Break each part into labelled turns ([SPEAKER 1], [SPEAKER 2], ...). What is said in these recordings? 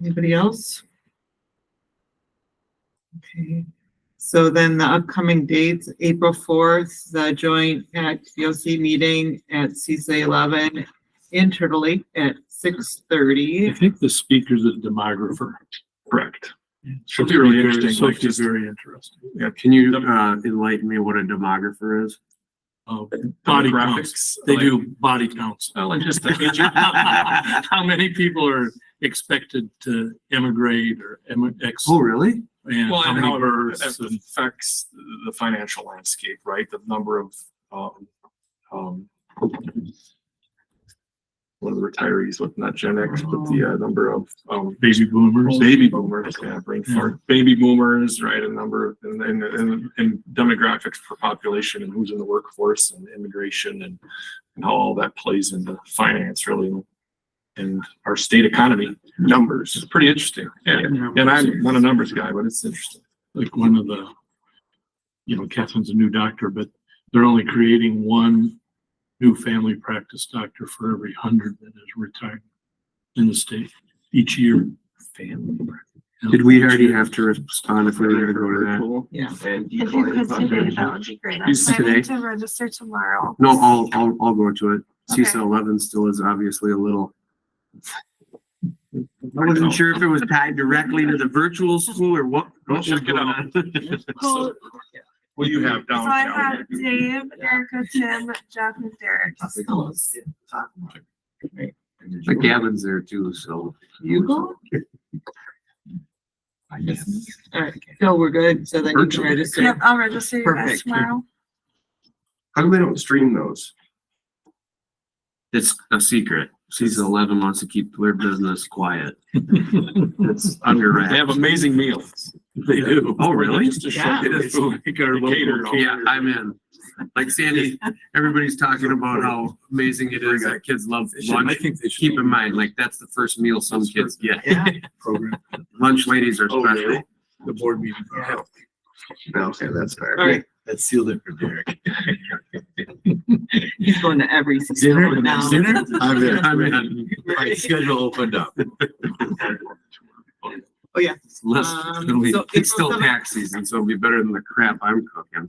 [SPEAKER 1] Anybody else? Okay, so then the upcoming dates, April fourth, the joint at VOC meeting at CC eleven in Turtle Lake at six
[SPEAKER 2] I
[SPEAKER 1] thirty.
[SPEAKER 2] think the speaker's a demographer.
[SPEAKER 3] Correct.
[SPEAKER 2] Should
[SPEAKER 3] be really interesting,
[SPEAKER 2] So
[SPEAKER 3] like
[SPEAKER 2] it'd be
[SPEAKER 3] just-
[SPEAKER 2] very interesting.
[SPEAKER 3] Yeah.
[SPEAKER 4] Can you uh, enlighten me what a demographer is?
[SPEAKER 2] Uh, Body counts.
[SPEAKER 3] Graphics.
[SPEAKER 2] They
[SPEAKER 3] like-
[SPEAKER 2] do body counts.
[SPEAKER 3] Well, and just the.
[SPEAKER 2] How many people are expected to emigrate or emi- ex?
[SPEAKER 4] Oh, really?
[SPEAKER 2] And
[SPEAKER 3] Well,
[SPEAKER 2] how
[SPEAKER 3] and
[SPEAKER 2] many
[SPEAKER 3] how
[SPEAKER 2] births?
[SPEAKER 3] it affects the financial landscape, right? The number of, um, um, one of the retirees, with not Gen X, but the, uh, number of, um,
[SPEAKER 2] Baby boomers?
[SPEAKER 3] baby boomers, yeah, brain fart, baby boomers, right? A number of- and and and and demographics for population and who's in the workforce and immigration and and how all that plays into finance really and our state economy numbers. It's pretty interesting. Yeah. And I'm not a numbers guy, but it's interesting.
[SPEAKER 2] like one of the, you know, Catherine's a new doctor, but they're only creating one new family practice doctor for every hundred that is retired in the state each year.
[SPEAKER 3] Family.
[SPEAKER 4] Did we already have to respond Uh, if we were going to go to that?
[SPEAKER 1] Yeah,
[SPEAKER 5] If you could today, that would be great.
[SPEAKER 4] Is
[SPEAKER 5] So I
[SPEAKER 4] today?
[SPEAKER 5] need to register tomorrow.
[SPEAKER 4] No, I'll, I'll, I'll go to it.
[SPEAKER 5] Okay.
[SPEAKER 4] CISA eleven still is obviously a little. I wasn't sure if it was tied directly to the virtual school or what. what was
[SPEAKER 3] Check it
[SPEAKER 4] going
[SPEAKER 3] out.
[SPEAKER 4] on.
[SPEAKER 5] Well,
[SPEAKER 3] What do you have
[SPEAKER 5] So
[SPEAKER 3] down?
[SPEAKER 5] I have Dave, Erica, Tim, Jeff, and Derek.
[SPEAKER 4] The cabin's there too, so.
[SPEAKER 1] you go? All right, no, we're good. So then you can
[SPEAKER 3] Virtually.
[SPEAKER 1] register.
[SPEAKER 5] Yep, I'll register you guys
[SPEAKER 1] Perfect.
[SPEAKER 5] tomorrow.
[SPEAKER 3] How come they don't stream those?
[SPEAKER 4] It's a secret. CISA eleven wants to keep their business quiet. It's under
[SPEAKER 3] They
[SPEAKER 4] wraps.
[SPEAKER 3] have amazing meals.
[SPEAKER 2] They do.
[SPEAKER 4] Oh, really?
[SPEAKER 2] Just to show
[SPEAKER 1] Yeah.
[SPEAKER 2] you, it's like our
[SPEAKER 3] Catered.
[SPEAKER 2] local-
[SPEAKER 4] Oh, Yeah, I'm in. Like Sandy, everybody's talking about how amazing it is that kids love
[SPEAKER 2] I
[SPEAKER 4] lunch.
[SPEAKER 2] think they should.
[SPEAKER 4] Keep in mind, like, that's the first meal some kids get.
[SPEAKER 1] Yeah,
[SPEAKER 2] Program,
[SPEAKER 4] Lunch ladies are
[SPEAKER 2] Oh,
[SPEAKER 4] special.
[SPEAKER 2] really? the board meeting.
[SPEAKER 1] Yeah.
[SPEAKER 4] Okay, that's fair.
[SPEAKER 1] all right,
[SPEAKER 2] That sealed it for Derek.
[SPEAKER 1] he's going to every single one now.
[SPEAKER 2] I'm in.
[SPEAKER 4] I'm in.
[SPEAKER 2] My schedule opened up.
[SPEAKER 1] Oh, yeah.
[SPEAKER 4] It's less-
[SPEAKER 1] Um,
[SPEAKER 4] it'll be-
[SPEAKER 1] so
[SPEAKER 4] It's still
[SPEAKER 1] April
[SPEAKER 4] tax season, so it'll be better than the crap I'm cooking.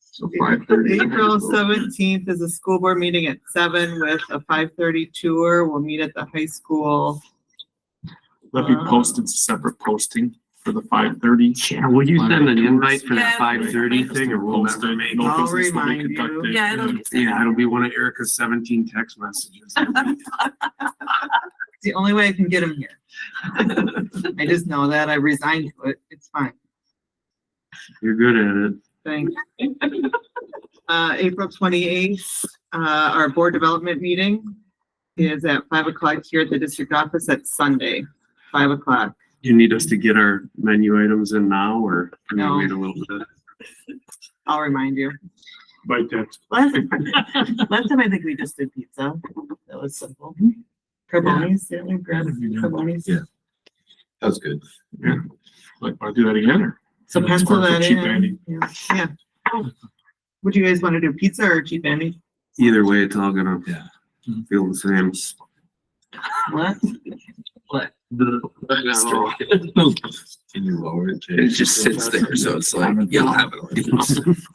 [SPEAKER 3] So
[SPEAKER 1] April seventeenth is a school board meeting at seven with a five thirty tour. We'll meet at the high school.
[SPEAKER 3] Let me post it's a separate posting for the five thirty.
[SPEAKER 4] Yeah, will you send an invite for that
[SPEAKER 5] Yeah.
[SPEAKER 4] five thirty thing or we'll never make it?
[SPEAKER 1] I'll remind you.
[SPEAKER 5] Yeah, it'll be.
[SPEAKER 4] Yeah, it'll be one of Erica's seventeen text messages.
[SPEAKER 1] It's the only way I can get him here. I just know that. I resigned to it. It's fine.
[SPEAKER 4] You're good at it.
[SPEAKER 1] Thanks. Uh, April twenty-eighth, uh, our board development meeting is at five o'clock here at the district office at Sunday, five o'clock.
[SPEAKER 4] You need us to get our menu items in now or can
[SPEAKER 1] No.
[SPEAKER 4] we wait a little bit?
[SPEAKER 1] I'll remind you.
[SPEAKER 2] By text.
[SPEAKER 1] Last, last time I think we just did pizza. That was simple. Carbonis, didn't we grab carbonis?
[SPEAKER 2] Yeah.
[SPEAKER 3] That was good.
[SPEAKER 2] Yeah. Like, I'll do that again or?
[SPEAKER 1] So
[SPEAKER 2] That's
[SPEAKER 1] pencil
[SPEAKER 2] more for
[SPEAKER 1] that
[SPEAKER 2] cheap
[SPEAKER 1] in.
[SPEAKER 2] Andy.
[SPEAKER 1] Yeah. Yeah. Would you guys want to do pizza or cheap Andy?
[SPEAKER 4] Either way, it's all gonna
[SPEAKER 2] Yeah.
[SPEAKER 4] feel the same.
[SPEAKER 1] What?
[SPEAKER 3] Can you lower it?
[SPEAKER 6] It just sits there, so it's like, you'll have it.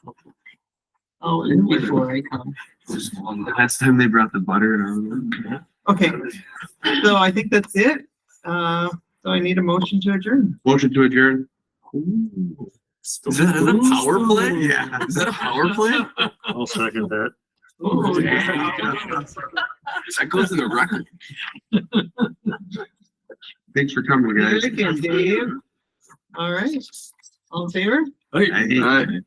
[SPEAKER 1] Oh, and before I come.
[SPEAKER 4] Last time they brought the butter and I was
[SPEAKER 1] Okay. So I think that's it. Uh, so I need a motion to adjourn.
[SPEAKER 4] like, motion to adjourn.
[SPEAKER 6] Is that a power play?
[SPEAKER 4] Yeah.
[SPEAKER 6] Is that a power play?
[SPEAKER 2] I'll second that.
[SPEAKER 1] Oh,
[SPEAKER 6] That goes in the record.
[SPEAKER 4] Thanks for coming, guys.
[SPEAKER 1] Eric and Dave. All right. All in favor?
[SPEAKER 4] I hate-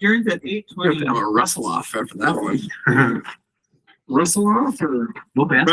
[SPEAKER 1] Adjourns at eight
[SPEAKER 6] We have
[SPEAKER 1] twenty.
[SPEAKER 6] to have a wrestle off after that one.
[SPEAKER 3] Russell off or?
[SPEAKER 4] Well, that's